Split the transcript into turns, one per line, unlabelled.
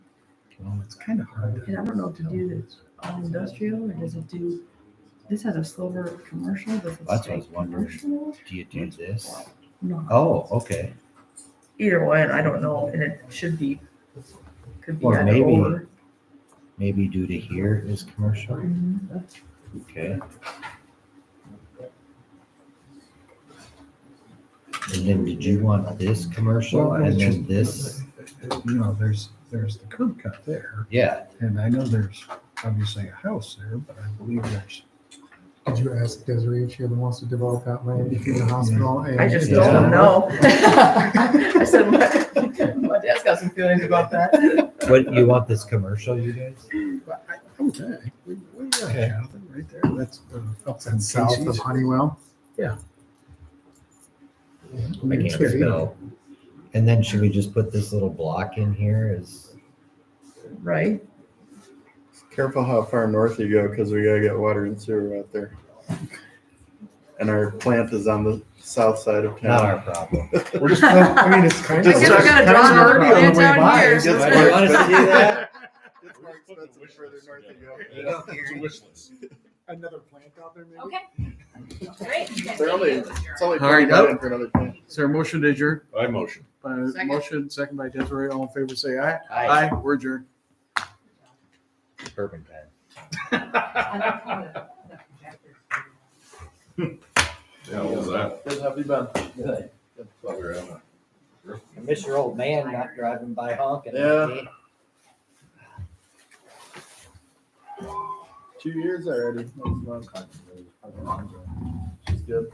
Well, it's kind of hard.
And I don't know if to do this all industrial or does it do, this has a silver commercial, does it
That's what I
say
was wondering.
commercial?
Do you do this?
No,
Oh, okay.
either way, I don't know, and it should be, could be
Or
either
maybe-
or.
Maybe due to here is commercial.
Mhm.
Okay. And then did you want this commercial
Well,
and
it's
then
just
this?
You know, there's, there's the curb cut there,
Yeah,
and I know there's obviously a house there, but I believe there's.
Did you ask Desiree if she ever wants to develop that land between the hospital and?
I just
Yeah.
don't know. I said, my, my dad's got some feelings about that.
what, you want this commercial, you guys?
But I- Okay, we, we got Jonathan right there, that's. uh, up in
That's south of
Casey's.
Honeywell.
I can't spell. And then should we just put this little block in here as,
Right?
Careful how far north you go because we gotta get water and sewer out there. And our plant is on the south side of
not
town.
our problem.
We're just, I mean, it's kind of.
I guess we're
gonna
kind of
draw
our
an
problem.
ordinance out
Why?
here,
It
so
gets
it's
worse.
not-
It's more expensive the further north you go.
It's a wish list.
Another plant out there, maybe?
Okay. Great.
They're only, it's only
All right,
forty million for another plant.
Is there a motion to adjourn?
I motion.
By
Second.
motion, second by Desiree, all in favor, say aye.
Aye.
We're adjourned.
Urban pen.
Yeah, what was that?
Good, have you been?
Thought we were having a-
I miss your old man not driving by honking.
Yeah. Two years already. That's not- She's good.